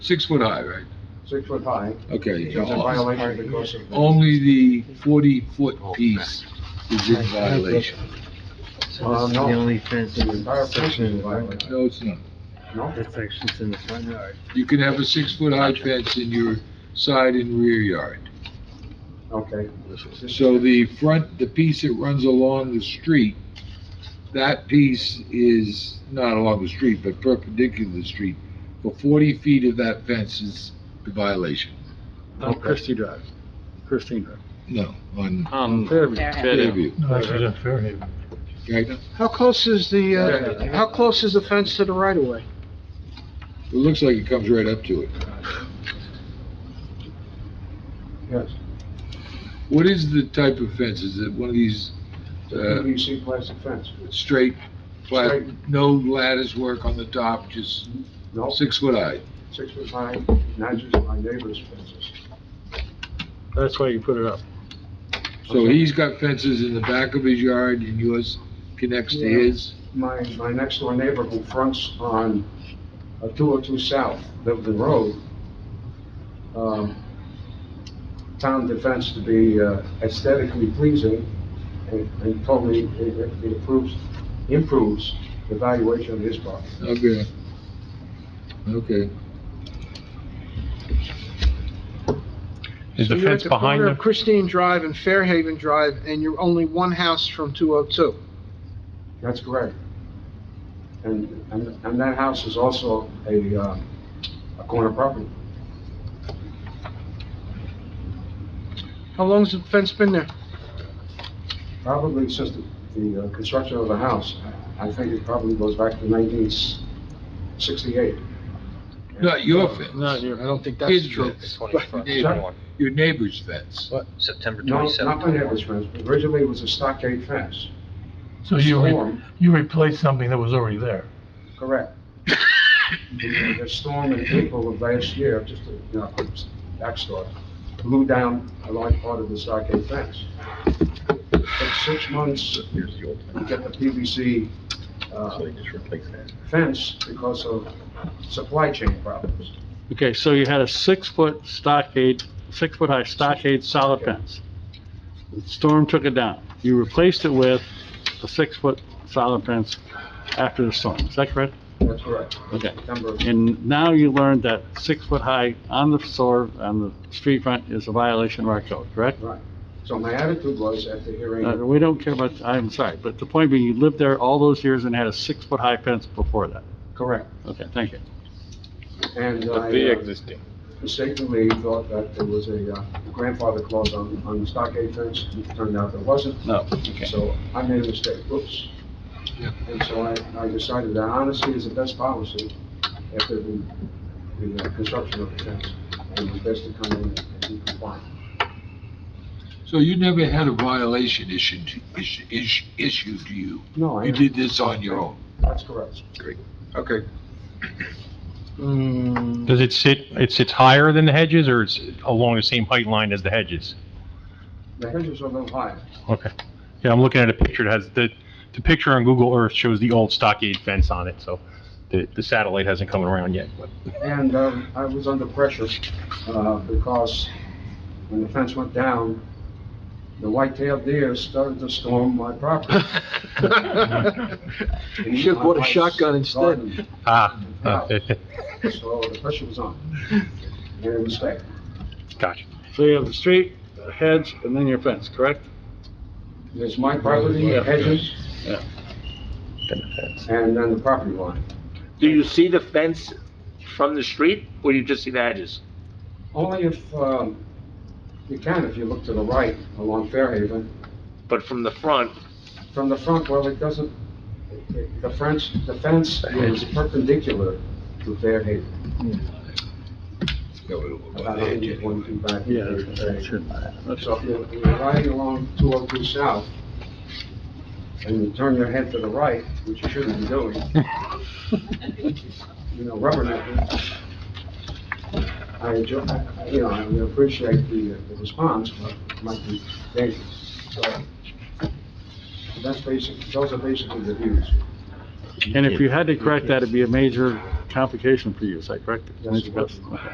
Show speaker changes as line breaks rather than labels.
Six foot high, right?
six foot high,
Okay.
it's a violation because of.
Only the forty foot piece is in violation.
So this is the only fence
The
in
entire
this
portion
section
is
in
a
the front yard.
violation,
No, it's not.
no?
That section's in the front yard.
You can have a six foot high fence in your side and rear yard.
Okay.
So the front, the piece that runs along the street, that piece is not along the street, but perpendicular to the street. For forty feet of that fence is the violation.
On Christie Drive, Christine Drive.
No, on
On
Fairview.
No, actually, it's Fairhaven.
Right?
How close is the, uh, how close is the fence to the right of way?
It looks like it comes right up to it.
Yes,
What is the type of fence? Is it one of these,
it's a
uh,
PVC plastic fence,
straight, flat,
Straight.
no lattice work on the top, just
no,
six foot high?
six foot high, not just my neighbor's fences.
That's why you put it up.
So he's got fences in the back of his yard and yours connects to
Yeah.
his?
My, my next door neighbor who fronts on uh, 202 South, the, the road, um, town defense to be uh, aesthetically pleasing and and totally, it it improves, improves the valuation of his property.
Okay. Okay.
Is
So
the
you're at
fence behind
corner
the,
of Christine Drive and Fairhaven Drive, and you're only one house from 202.
That's correct. And, and, and that house is also a, uh, a corner property.
How long's the fence been there?
Probably since the, the uh, construction of the house, I think it probably goes back to nineteen sixty-eight.
Not your fence.
Not your-
I don't think
that's
His
true.
fence. Your neighbor- Your neighbor's fence.
September
No, not my neighbor's fence, but originally it was a stockade fence.
so you, re-
Storm,
you replaced something that was already there?
Correct. The the storm in April of last year, just to, you know, backstory, blew down a large part of the stockade fence. Took six months
Here's the old
to
fence.
get the PVC uh,
So they just replace that.
fence because of supply chain problems.
Okay, so you had a six-foot stockade, six-foot-high stockade solid fence. Storm took it down. You replaced it with a six-foot solid fence after the storm. Is that correct?
That's correct.
Okay.
September,
And now you learned that six-foot-high on the store, on the street front is a violation of our code, correct?
right. So my attitude was at the
Uh,
hearing,
We don't care about, I'm sorry, but the point being, you lived there all those years and had a six-foot-high fence before that.
correct.
Okay, thank you.
And I uh, mistakenly thought that there was a uh, grandfather clause on, on the stockade fence. It turned out there wasn't.
No, okay.
So I made a mistake, oops. And so I, I decided that honesty is the best policy after the, the uh, construction of the fence. And it's best to come in and be compliant.
So you never had a violation issued, is- is- issued to you?
No, I.
You did this on your own?
That's correct.
Okay.
Does it sit, it sits higher than the hedges, or it's along the same height line as the hedges?
The hedges are a little high.
Okay. Yeah, I'm looking at a picture that has, the, the picture on Google Earth shows the old stockade fence on it, so the, the satellite hasn't come around yet, but.
And um, I was under pressure uh, because when the fence went down, the white-tailed deer started to storm my property.
Hmm.
You
should've bought a shotgun instead.
Ah, ah,
So the pressure was on. Made a mistake.
gotcha.
So you have the street, the hedge, and then your fence, correct?
There's my property, hedges,
Then the fence.
and then the property line.
Do you see the fence from the street, or you just see the hedges?
Only if, um, you can, if you look to the right along Fairhaven,
But from the front,
From the front, well, it doesn't, it- it- the French, the fence is perpendicular to Fairhaven. About 120 feet back.
Yeah,
Fairhaven.
that should matter.
So if you're you're riding along 202 South, and you turn your head to the right, which you shouldn't be doing, you know, rubbernecking, I enjoy, I- you know, I would appreciate the uh, the response, but it might be dangerous. So that's basic, those are basically the views.
And if you had to correct that, it'd be a major
complication for you, is that correct?
Yes, it was.
Okay.